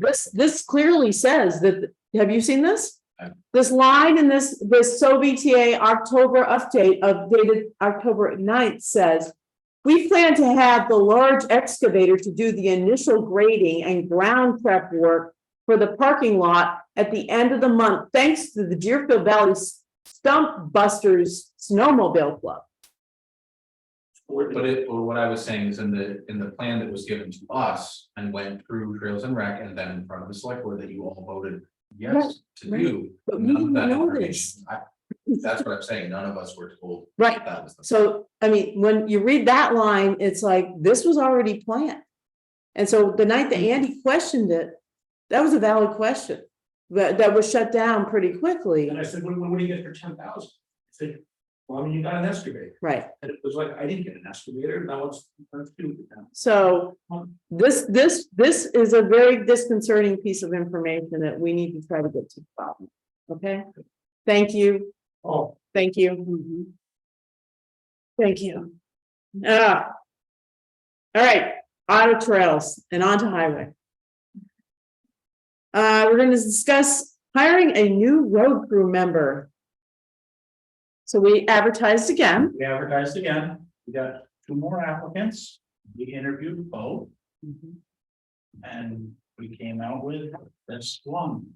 This, this clearly says that, have you seen this? I've- This line in this, this SOBTA October update of dated October 9th says. We plan to have the large excavator to do the initial grading and ground prep work. For the parking lot at the end of the month, thanks to the Deerfield Valley Stump Busters Snowmobile Club. But it, well, what I was saying is in the, in the plan that was given to us and went through Trails and Rec and then in front of the select board that you all voted yes to Right, do. But we none of didn't that know information- this, I- That's what I'm saying, none of us were told right? that was the. So, I mean, when you read that line, it's like, this was already planned. And so the night that Andy questioned it, that was a valid question, but that was shut down pretty quickly, And I said, what, what do you get for ten thousand? He said, well, I mean, you got an excavator. right? And it was like, I didn't get an excavator, now it's, it's two of them. So this, this, this is a very disconcerting piece of information that we need to try to get to the bottom. Okay? Thank you, Oh, thank you. Thank you. Ah. All right, auto trails and onto highway. Uh, we're gonna discuss hiring a new road crew member. So we advertised again, we advertised again, we got two more applicants, we interviewed both, and we came out with this one,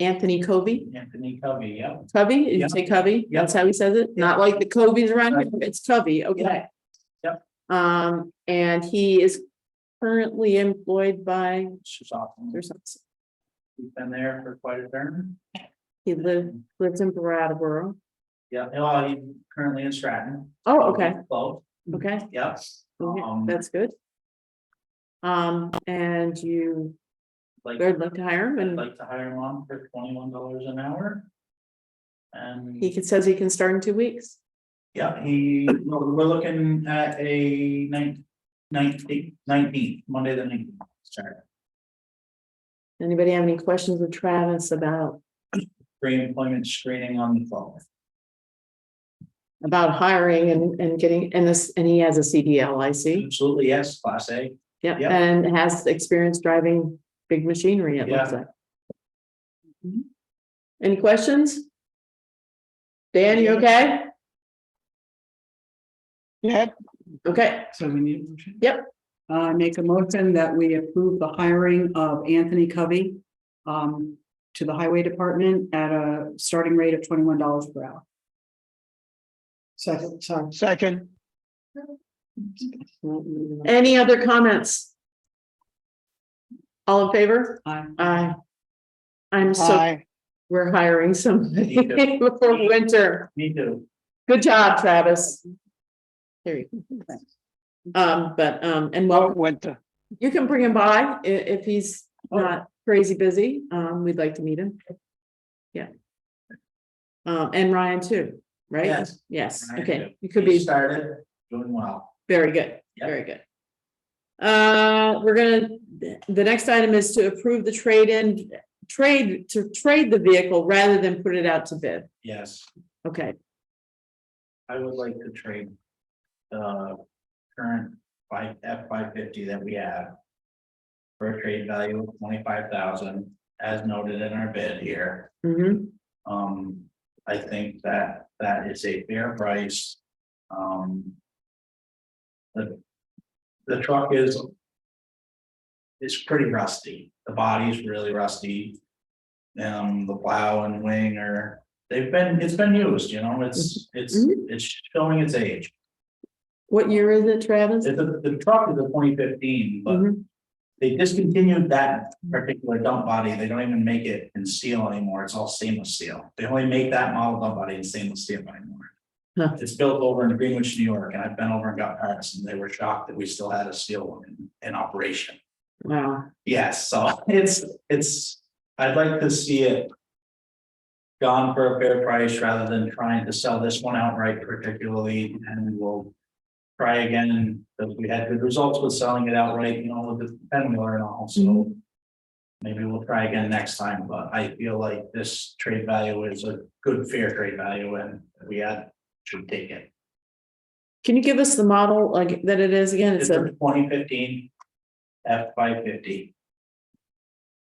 Anthony Covey, Anthony Covey, yep. Covey, did Yeah. you say Covey? Yeah. That's how he says it, not like the Coveys around here, Right. it's Covey, okay. Yeah. Um, and he is currently employed by, She's awesome, there's, some- we've been there for quite a turn. he lives, lives in Brattleboro. Yeah, well, he's currently in Stratton. Oh, okay, Both, okay. yes. Okay, Um, That's good. Um, and you like- would like to hire him I'd and like to hire him on for twenty-one dollars an hour. And, he can, says he can start in two weeks. yeah, he, no, we're looking at a ninth, nineteenth, nineteenth, Monday the nineteenth, sorry. Anybody have any questions with Travis about, Pre-employment screening on the phone. about hiring and, and getting, and this, and he has a CDL, I see. Absolutely, yes, class A. Yep, Yeah. and has experience driving big machinery, it looks Yeah. like. Mm-hmm. Any questions? Dan, you okay? Yeah, Okay, so we need a motion. Yep. I make a motion that we approve the hiring of Anthony Covey um, to the highway department at a starting rate of twenty-one dollars per hour. Second, sorry. Second, any other comments? All in favor? Aye. Aye. I'm so, aye, we're hiring somebody Me too. before winter. Me too. Good job, Travis. There you go. Um, but, um, and vote well, winter, you can bring him by i- if he's not crazy busy. Um, we'd like to meet him. Yeah. Um, and Ryan too, right? Yes. Yes, Ryan okay. too. You could He be Started, doing well. very good, Yep. very good. Uh, we're gonna, the next item is to approve the trade-in, trade, to trade the vehicle rather than put it out to bid. Yes, Okay, I would like to trade. The current five, F five fifty that we have. For a trade value of twenty-five thousand, as noted in our bid here. Mhm. Um, I think that that is a fair price. Um. The. The truck is. It's pretty rusty. The body's really rusty. Um, the plow and wing are, they've been, it's been used, you know, it's, it's, it's showing its age. What year is it, Travis? It's a- the truck is a twenty fifteen, but Mhm. they discontinued that particular dump body. They don't even make it in steel anymore. It's all stainless steel. They only make that model dump body in stainless steel Huh. anymore. It's built over in Greenwich, New York, and I've been over and got parts and they were shocked that we still had a steel one in, in operation. Wow, Yes, so it's, it's, I'd like to see it. Gone for a fair price rather than trying to sell this one outright particularly, and we'll. Try again, because we had good results with selling it outright, you know, with the pen wheeler and all, so. Maybe we'll try again next time, but I feel like this trade value is a good fair trade value and we had, should take it. can you give us the model like that it is again? It's It's a a twenty fifteen F five fifty.